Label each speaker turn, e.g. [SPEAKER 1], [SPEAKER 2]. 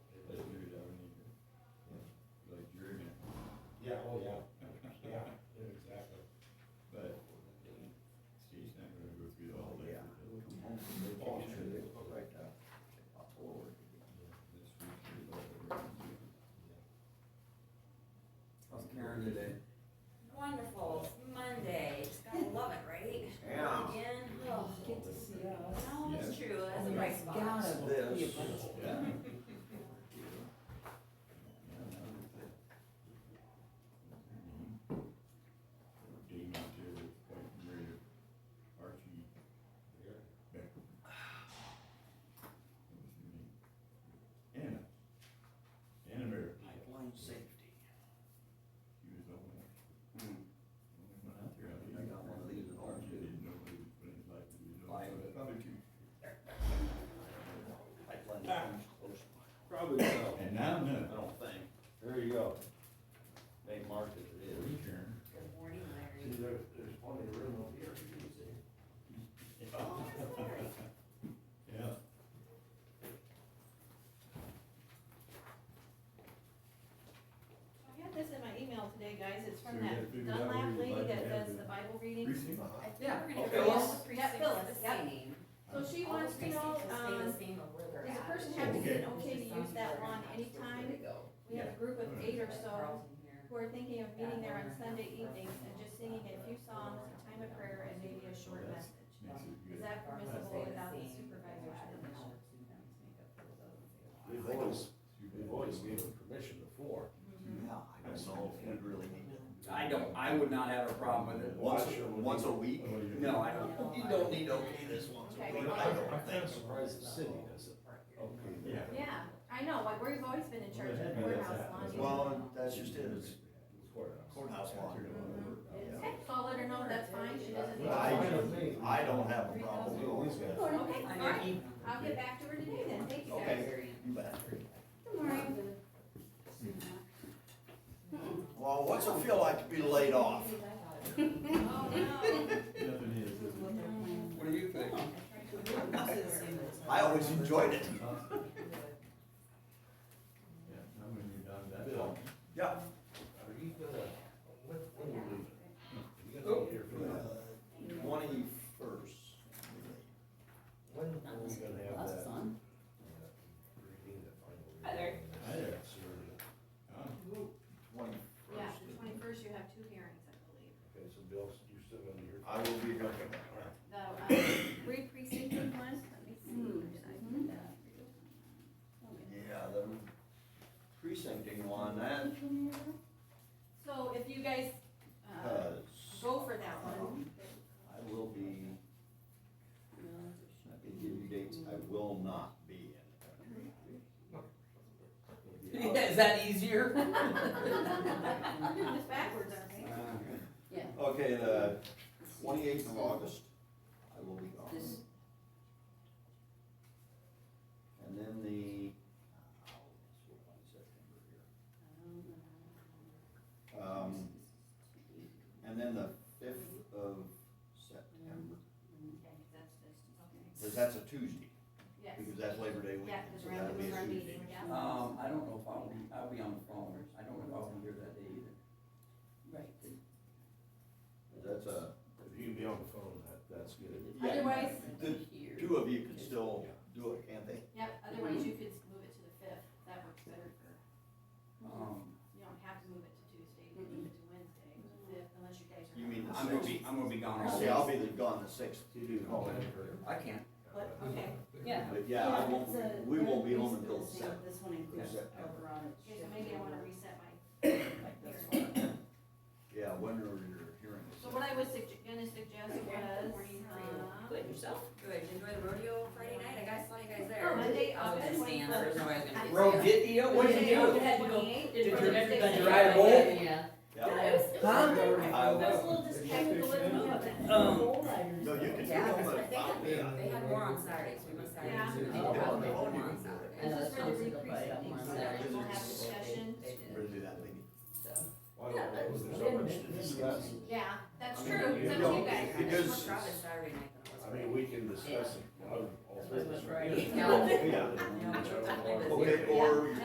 [SPEAKER 1] oh,
[SPEAKER 2] earned today.
[SPEAKER 3] Wonderful, it's Monday, just gotta love it, right?
[SPEAKER 2] Yeah.
[SPEAKER 3] Again, oh,
[SPEAKER 4] Get to see us.
[SPEAKER 3] no, it's true, that's a
[SPEAKER 4] There's
[SPEAKER 3] bright spot.
[SPEAKER 4] gotta be a
[SPEAKER 2] This.
[SPEAKER 4] bunch of-
[SPEAKER 2] Yeah.
[SPEAKER 5] Dean out there with White and Red, Archie. Beck. What was her name? Anna. Anna Mary.
[SPEAKER 1] Pipeline safety.
[SPEAKER 5] She was the only,
[SPEAKER 2] Hmm.
[SPEAKER 5] only one out there. think.
[SPEAKER 2] I got one of these at home, too.
[SPEAKER 5] Didn't know what it was, but it's like, you know, so
[SPEAKER 2] Like-
[SPEAKER 5] probably two.
[SPEAKER 2] Pipeline comes close.
[SPEAKER 6] Probably so.
[SPEAKER 5] And now,
[SPEAKER 2] I
[SPEAKER 5] no.
[SPEAKER 2] don't think,
[SPEAKER 6] There you go.
[SPEAKER 2] they marked it, it is.
[SPEAKER 5] Karen.
[SPEAKER 3] Good morning,
[SPEAKER 1] See,
[SPEAKER 3] Larry.
[SPEAKER 1] there, there's one in the room over here, you can see.
[SPEAKER 3] Oh, there's Larry.
[SPEAKER 5] Yeah.
[SPEAKER 7] I got this in my email today, guys, it's
[SPEAKER 5] So
[SPEAKER 7] from
[SPEAKER 5] we gotta
[SPEAKER 7] that
[SPEAKER 5] figure out where
[SPEAKER 7] Dunlap
[SPEAKER 5] you'd
[SPEAKER 7] lady
[SPEAKER 5] like to
[SPEAKER 7] that
[SPEAKER 5] have
[SPEAKER 7] does
[SPEAKER 5] the
[SPEAKER 7] the Bible
[SPEAKER 5] Reese,
[SPEAKER 7] reading.
[SPEAKER 5] huh?
[SPEAKER 3] I think we're gonna
[SPEAKER 2] Okay.
[SPEAKER 3] go all the
[SPEAKER 7] Yeah,
[SPEAKER 3] precincts
[SPEAKER 7] Phyllis,
[SPEAKER 3] the
[SPEAKER 7] yep.
[SPEAKER 3] same.
[SPEAKER 7] So
[SPEAKER 3] All
[SPEAKER 7] she
[SPEAKER 3] the
[SPEAKER 7] wants to know,
[SPEAKER 3] precincts will stay the
[SPEAKER 7] um,
[SPEAKER 3] same, but we're gonna
[SPEAKER 7] does a
[SPEAKER 3] have
[SPEAKER 7] person
[SPEAKER 3] to
[SPEAKER 7] have to
[SPEAKER 3] choose.
[SPEAKER 7] be
[SPEAKER 5] Okay.
[SPEAKER 7] okay to use that one anytime? We have a group of eight or so who are thinking of meeting there on Sunday evenings and just singing a few songs, a time of prayer, and maybe a short message.
[SPEAKER 5] Makes it good.
[SPEAKER 7] Is that permissible without the supervisor?
[SPEAKER 1] We've
[SPEAKER 2] I
[SPEAKER 1] always,
[SPEAKER 5] She
[SPEAKER 1] we've
[SPEAKER 5] was-
[SPEAKER 1] always given permission before.
[SPEAKER 2] Yeah, I don't know if we really need to.
[SPEAKER 8] I don't, I would not have a problem with it, once, once a week,
[SPEAKER 5] Oh, yeah.
[SPEAKER 8] no, I don't.
[SPEAKER 2] You don't need to okay this once a
[SPEAKER 7] Okay.
[SPEAKER 2] week, I don't
[SPEAKER 1] I'm
[SPEAKER 2] think.
[SPEAKER 1] surprised the city doesn't.
[SPEAKER 5] Okay.
[SPEAKER 1] Yeah.
[SPEAKER 7] Yeah, I know, like, we've always been in church at
[SPEAKER 5] Well, that's-
[SPEAKER 7] courthouse lawn.
[SPEAKER 2] Well, that's just it, it's courthouse
[SPEAKER 5] Courthouse
[SPEAKER 2] lawn.
[SPEAKER 7] Okay, so I'll let her know that's fine, she doesn't.
[SPEAKER 2] I,
[SPEAKER 6] I-
[SPEAKER 2] I don't have a problem with all
[SPEAKER 6] Yeah.
[SPEAKER 2] that.
[SPEAKER 7] Okay, all right.
[SPEAKER 3] Alright,
[SPEAKER 7] I'll get back to her today then, thank you guys.
[SPEAKER 2] Okay, you bet.
[SPEAKER 7] Good morning.
[SPEAKER 2] Well, what's it feel like to be laid off?
[SPEAKER 7] Oh, no.
[SPEAKER 5] Nothing is, is it?
[SPEAKER 8] What do you think?
[SPEAKER 2] I always enjoyed it.
[SPEAKER 5] Yeah, not when you're done that.
[SPEAKER 1] Bill.
[SPEAKER 2] Yeah.
[SPEAKER 1] Are you gonna, when, when are you leaving? You gonna be here for that?
[SPEAKER 2] Twenty-first.
[SPEAKER 1] When are we gonna have that? reading, the final
[SPEAKER 3] Hi there.
[SPEAKER 1] reading?
[SPEAKER 5] Hi there. Oh,
[SPEAKER 2] Twenty.
[SPEAKER 7] Yeah, the twenty-first, you have two hearings, I believe.
[SPEAKER 1] Okay, so Bill, you're still gonna be here?
[SPEAKER 2] I will be here.
[SPEAKER 7] The, um, three precincted ones, let me see, where did I put that?
[SPEAKER 2] Yeah, the precincting one, that
[SPEAKER 7] So if you guys, uh,
[SPEAKER 2] has,
[SPEAKER 7] go for that one,
[SPEAKER 2] I will be, I can give you dates, I will not be in. the country.
[SPEAKER 8] Is that easier?
[SPEAKER 7] it's backwards, I think.
[SPEAKER 4] Yeah.
[SPEAKER 2] Okay, the twenty-eighth of August, I will be gone.
[SPEAKER 4] This-
[SPEAKER 2] And then the, oh, that's what I'm September here. Um, and then the fifth of September,
[SPEAKER 7] Okay, that's
[SPEAKER 2] because that's a
[SPEAKER 7] this, okay.
[SPEAKER 2] Tuesday,
[SPEAKER 7] Yes,
[SPEAKER 2] because that's Labor Day
[SPEAKER 7] yeah,
[SPEAKER 2] weekend,
[SPEAKER 7] because
[SPEAKER 2] so
[SPEAKER 7] we're
[SPEAKER 2] that'll
[SPEAKER 7] at
[SPEAKER 2] be a
[SPEAKER 7] the, our
[SPEAKER 2] Tuesday.
[SPEAKER 7] meeting, yeah.
[SPEAKER 8] Um, I don't know if I'll be, I'll be on the phone, I don't know if I'll be here that day either.
[SPEAKER 4] Right.
[SPEAKER 2] That's a,
[SPEAKER 1] If you can be on the phone, that, that's good.
[SPEAKER 2] yeah,
[SPEAKER 7] Otherwise,
[SPEAKER 2] the two of you can still do it, can't they?
[SPEAKER 7] yep, otherwise you could move it to the fifth, that works better for.
[SPEAKER 8] Um,
[SPEAKER 7] You don't have to move it to Tuesday, you can move it to Wednesday, to the fifth, unless you guys are.
[SPEAKER 2] You mean the
[SPEAKER 8] I'm gonna be, I'm gonna be gone all
[SPEAKER 2] See, I'll
[SPEAKER 8] day.
[SPEAKER 2] be the- gone the sixth,
[SPEAKER 1] You do call
[SPEAKER 2] Oh,
[SPEAKER 1] in for.
[SPEAKER 8] I can't,
[SPEAKER 4] But,
[SPEAKER 7] Okay,
[SPEAKER 4] yeah.
[SPEAKER 2] but yeah, I won't,
[SPEAKER 4] it's a-
[SPEAKER 2] we won't be home
[SPEAKER 4] it's
[SPEAKER 2] until
[SPEAKER 4] the
[SPEAKER 2] the
[SPEAKER 4] same.
[SPEAKER 2] seventh.
[SPEAKER 4] This one includes
[SPEAKER 2] September.
[SPEAKER 4] over on it.
[SPEAKER 7] okay, so maybe I wanna reset my,
[SPEAKER 4] Like this one.
[SPEAKER 2] Yeah, when are your hearings?
[SPEAKER 7] so what I was sugge- gonna suggest was, uh,
[SPEAKER 3] Good, yourself? Good, Did you enjoy the rodeo Friday night, I guys saw you guys there. uh,
[SPEAKER 7] Oh, Monday,
[SPEAKER 3] I was
[SPEAKER 7] August
[SPEAKER 3] gonna stand, there's no way I was gonna. be
[SPEAKER 7] Rodeo.
[SPEAKER 3] there.
[SPEAKER 8] Rodeo,
[SPEAKER 7] what
[SPEAKER 8] what'd
[SPEAKER 7] did
[SPEAKER 8] you do?
[SPEAKER 7] you do?
[SPEAKER 8] Did your-
[SPEAKER 7] everybody
[SPEAKER 8] did you ride a bull?
[SPEAKER 4] Yeah.
[SPEAKER 2] Yeah.
[SPEAKER 7] That
[SPEAKER 2] I
[SPEAKER 7] was a
[SPEAKER 2] will.
[SPEAKER 7] little just technical, it was nothing.
[SPEAKER 8] Um,
[SPEAKER 2] No, you can do
[SPEAKER 3] Yeah,
[SPEAKER 2] it,
[SPEAKER 3] that's
[SPEAKER 2] but
[SPEAKER 3] what they
[SPEAKER 2] I'll be.
[SPEAKER 3] had, they had more on Saturdays, we must Saturdays.
[SPEAKER 7] Yeah.
[SPEAKER 3] so they
[SPEAKER 4] Oh,
[SPEAKER 3] probably
[SPEAKER 2] okay.
[SPEAKER 3] had more on
[SPEAKER 2] Oh,
[SPEAKER 3] Saturdays.
[SPEAKER 7] This is for the
[SPEAKER 4] Yeah, that sounds like a
[SPEAKER 7] re-precinct,
[SPEAKER 4] bite.
[SPEAKER 7] so that we'll have discussion.
[SPEAKER 2] Really that thing.
[SPEAKER 1] Why don't, there's so much to discuss.
[SPEAKER 7] Yeah, that's
[SPEAKER 1] I mean,
[SPEAKER 7] true,
[SPEAKER 1] you
[SPEAKER 7] it's up to
[SPEAKER 1] know,
[SPEAKER 7] you guys.
[SPEAKER 2] it
[SPEAKER 3] It's
[SPEAKER 2] is-
[SPEAKER 3] much rather Saturday night than it was.
[SPEAKER 1] I mean, we can discuss it.
[SPEAKER 4] That's
[SPEAKER 1] All
[SPEAKER 4] right.
[SPEAKER 1] three of us.
[SPEAKER 4] Yeah.
[SPEAKER 1] Yeah.
[SPEAKER 3] Yeah.
[SPEAKER 1] Yeah.
[SPEAKER 2] Okay, or